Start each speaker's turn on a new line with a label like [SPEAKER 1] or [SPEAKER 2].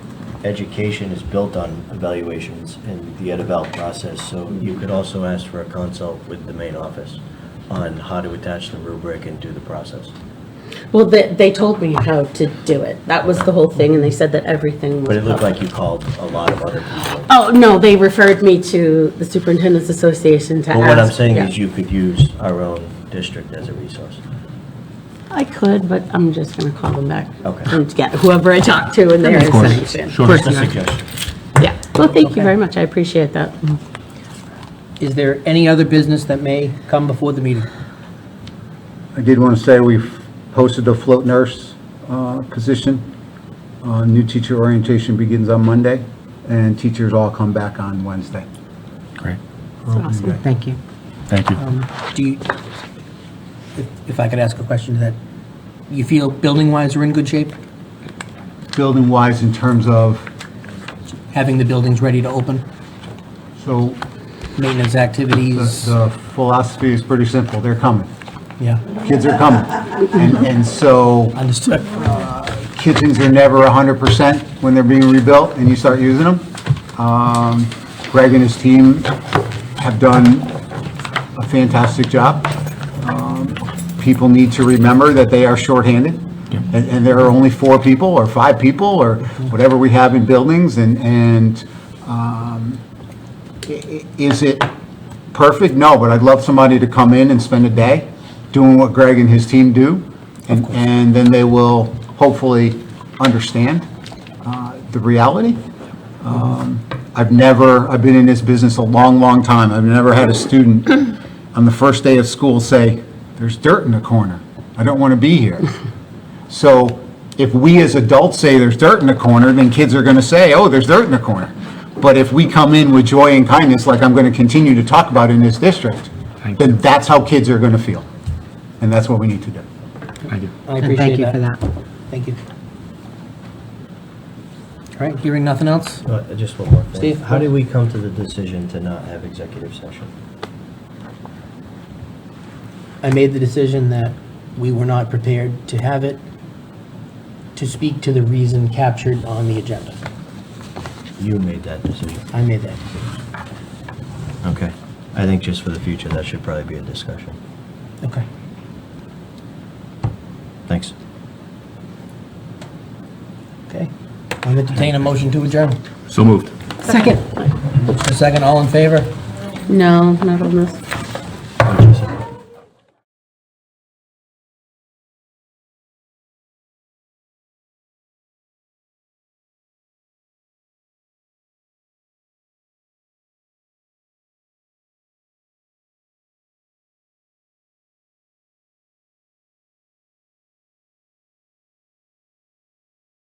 [SPEAKER 1] education is built on evaluations and the ed eval process, so you could also ask for a consult with the main office on how to attach the rubric and do the process.
[SPEAKER 2] Well, they, they told me how to do it. That was the whole thing, and they said that everything was.
[SPEAKER 1] But it looked
[SPEAKER 2] public.
[SPEAKER 1] like you called a lot of other people.
[SPEAKER 2] Oh, no, they referred me to the Superintendent's Association to ask.
[SPEAKER 1] Well, what I'm saying
[SPEAKER 2] yeah.
[SPEAKER 1] is you could use our own district as a resource.
[SPEAKER 2] I could, but I'm just gonna call them back.
[SPEAKER 1] Okay.
[SPEAKER 2] And get whoever I talk to in their
[SPEAKER 3] Of course,
[SPEAKER 2] information.
[SPEAKER 3] sure.
[SPEAKER 2] Of course
[SPEAKER 1] Just a
[SPEAKER 2] not.
[SPEAKER 1] suggestion.
[SPEAKER 2] Yeah, well, thank you
[SPEAKER 3] Okay.
[SPEAKER 2] very much, I appreciate that.
[SPEAKER 3] Is there any other business that may come before the meeting?
[SPEAKER 4] I did want to say we've posted a float nurse uh, position. Uh, New teacher orientation begins on Monday, and teachers all come back on Wednesday.
[SPEAKER 5] Great,
[SPEAKER 2] Awesome, thank you.
[SPEAKER 5] thank you.
[SPEAKER 3] Um, Do you, if- if I could ask a question to that, you feel building-wise we're in good shape,
[SPEAKER 4] Building-wise, in terms of,
[SPEAKER 3] having the buildings ready to open,
[SPEAKER 4] so
[SPEAKER 3] maintenance
[SPEAKER 4] the-
[SPEAKER 3] activities?
[SPEAKER 4] the philosophy is pretty simple, they're coming.
[SPEAKER 3] Yeah,
[SPEAKER 4] Kids are coming. And and so,
[SPEAKER 3] understood.
[SPEAKER 4] kitchens are never 100% when they're being rebuilt and you start using them. Um, Greg and his team have done a fantastic job. Um, People need to remember that they are shorthanded, and and there are only four people, or five people, or whatever we have in buildings, and, and um, i- i- is it perfect? No, but I'd love somebody to come in and spend a day doing what Greg and his team do, and, and then they will hopefully understand uh, the reality. Um, I've never, I've been in this business a long, long time, I've never had a student on the first day of school say, there's dirt in the corner, I don't want to be here. So if we as adults say there's dirt in the corner, then kids are going to say, oh, there's dirt in the corner. But if we come in with joy and kindness, like I'm going to continue to talk about in this district,
[SPEAKER 5] Thank you.
[SPEAKER 4] then that's how kids are going to feel. And that's what we need to do.
[SPEAKER 5] Thank you.
[SPEAKER 3] I
[SPEAKER 2] And
[SPEAKER 3] appreciate
[SPEAKER 2] thank you for
[SPEAKER 3] that.
[SPEAKER 2] that.
[SPEAKER 3] Thank you. All right, hearing nothing else?
[SPEAKER 1] Uh, Just one more thing.
[SPEAKER 3] Steve?
[SPEAKER 1] How did we come to the decision to not have executive session?
[SPEAKER 3] I made the decision that we were not prepared to have it, to speak to the reason captured on the agenda.
[SPEAKER 1] You made that decision.
[SPEAKER 3] I made that decision.
[SPEAKER 1] Okay. I think just for the future, that should probably be a discussion.
[SPEAKER 3] Okay.
[SPEAKER 1] Thanks.
[SPEAKER 3] Okay. I'll entertain a motion to adjourn.
[SPEAKER 5] So moved.
[SPEAKER 2] Second,
[SPEAKER 3] A second, all in favor?
[SPEAKER 2] no, not on this.